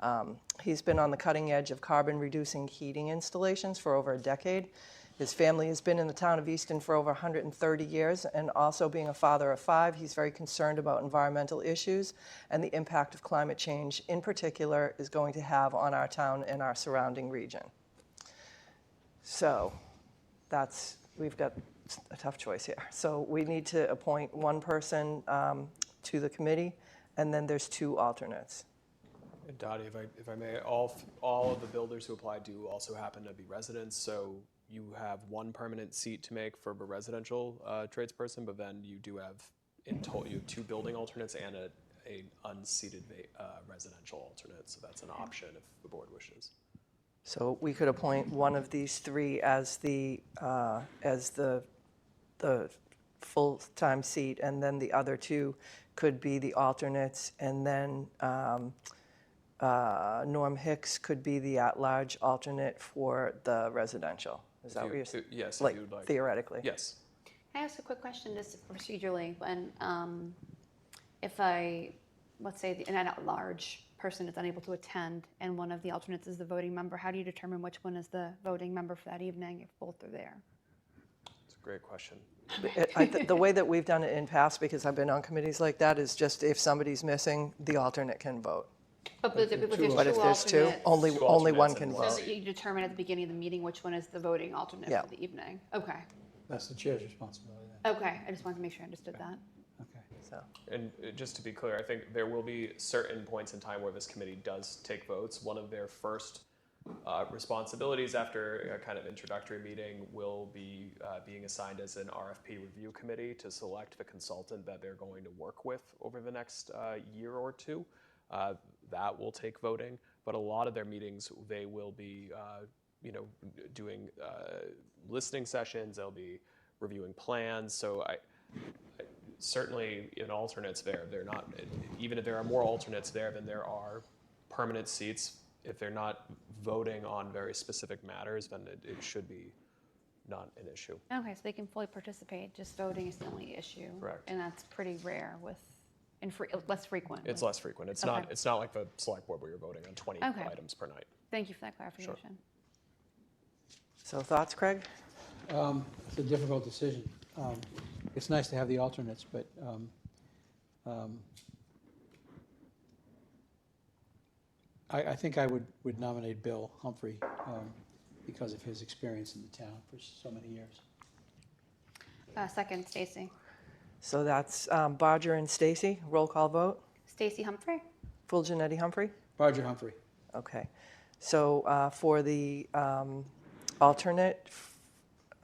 Um, He's been on the cutting edge of carbon-reducing heating installations for over a decade. His family has been in the town of Easton for over 130 years, and also being a father of five, he's very concerned about environmental issues and the impact of climate change in particular is going to have on our town and our surrounding region. So that's, we've got a tough choice here. So we need to appoint one person um, to the committee, and then there's two alternates. And Dottie, if I, if I may, all, f- all of the builders who applied do also happen to be residents, so you have one permanent seat to make for a residential uh, tradesperson, but then you do have, in total, you have two building alternates and a, a unseated va- uh, residential alternate, so that's an option if the board wishes. So we could appoint one of these three as the, uh, as the, the full-time seat, and then the other two could be the alternates, and then um, uh, Norm Hicks could be the at-large alternate for the residential. Is that what you're saying? Yes, if Like you would like. theoretically? Yes. Can I ask a quick question, just procedurally, when, um, if I, let's say, an at-large person is unable to attend and one of the alternates is the voting member, how do you determine which one is the voting member for that evening if both are there? It's a great question. It- I th- The way that we've done it in past, because I've been on committees like that, is just if somebody's missing, the alternate can vote. But if there's two But if there's two, only, Two only one alternates can and So vote. that you determine at the beginning of the meeting which one is the voting alternate Yeah. for the evening? Okay, That's the chair's responsibility then, okay, I just wanted to make sure I understood that. okay. so. And uh, just to be clear, I think there will be certain points in time where this committee does take votes. One of their first uh, responsibilities after a kind of introductory meeting will be uh, being assigned as an RFP review committee to select the consultant that they're going to work with over the next uh, year or two. Uh, that will take voting, but a lot of their meetings they will be, uh, you know, doing uh, listening sessions. They'll be reviewing plans. So I, certainly in alternates there, they're not, even if there are more alternates there than there are permanent seats, if they're not voting on very specific matters, then it, it should be not an issue. Okay, so they can fully participate, just voting is the only issue. Correct. And that's pretty rare with, and fre- less frequent. It's with- less frequent. It's not, Okay. it's not like the select board where you're voting on 20 Okay. items per night. Thank you for that clarification. So thoughts, Craig? Um, It's a difficult decision. Um, It's nice to have the alternates, but um, um, I, I think I would, would nominate Bill Humphrey um, because of his experience in the town for so many years. Uh, Second, Stacy. So that's um, Bodger and Stacy. Roll call vote. Stacy Humphrey? Full Janetti Humphrey. Barger Humphrey, Okay. So uh, for the um, alternate f-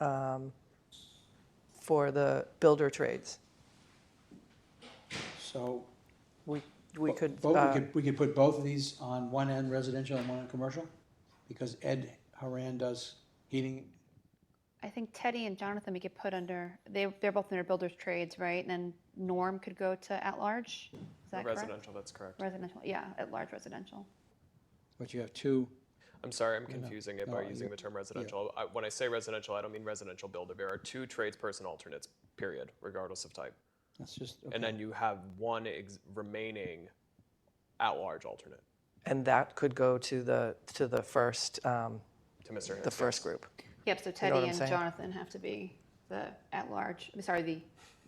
um, for the builder trades, so. we we bo- could. bo- we uh, We could put both of these on one end residential and one end commercial, because Ed Haran does heating I think Teddy and Jonathan we could put under, they, they're both under builder's trades, right? And then Norm could go to at-large? Is that correct? Residential, that's correct. Residential, yeah, at-large residential. But you have two, I'm sorry, I'm confusing it by no, using you- the term residential. I- When I say residential, I don't mean residential builder. There are two tradesperson alternates, period, regardless of type. that's just, And then you have one ex- remaining at-large alternate and that could go to the to the first um, to Mr. Hicks. the first group. Yep, so what Teddy I'm and saying? Jonathan have to be the at-large, I'm sorry, the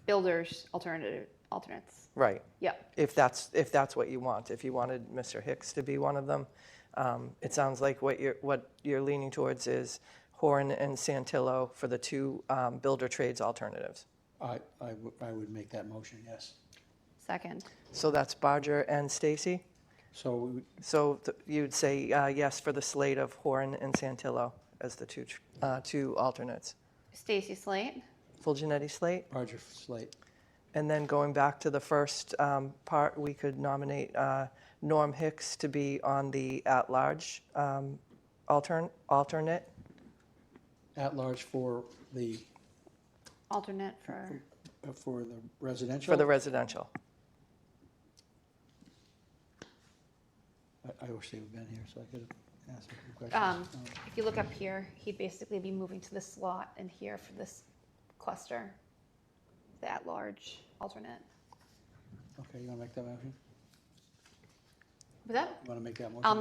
builder's alternative, alternates. Right. Yep, If that's if that's what you want. If you wanted Mr. Hicks to be one of them, um, it sounds like what you're what you're leaning towards is Horn and Santillo for the two um, builder trades alternatives. I, I would- I would make that motion, yes. second. So that's Bodger and Stacy. So we would- So th- you'd say uh, yes for the slate of Horn and Santillo as the two tr- uh, two alternates. Stacy Slate, Full Genetti slate, Roger Slate, and then going back to the first um, part, we could nominate uh, Norm Hicks to be on the at-large um, altern- alternate. at large for the, alternate for, uh, for the residential. For the residential. I- I wish they had been here so I could have asked them some um, questions. Um, if you look up here, he'd basically be moving to this slot and here for this cluster, the at-large alternate. Okay, Oh, you want to make that motion? Was that You want to make that um, motion? I'll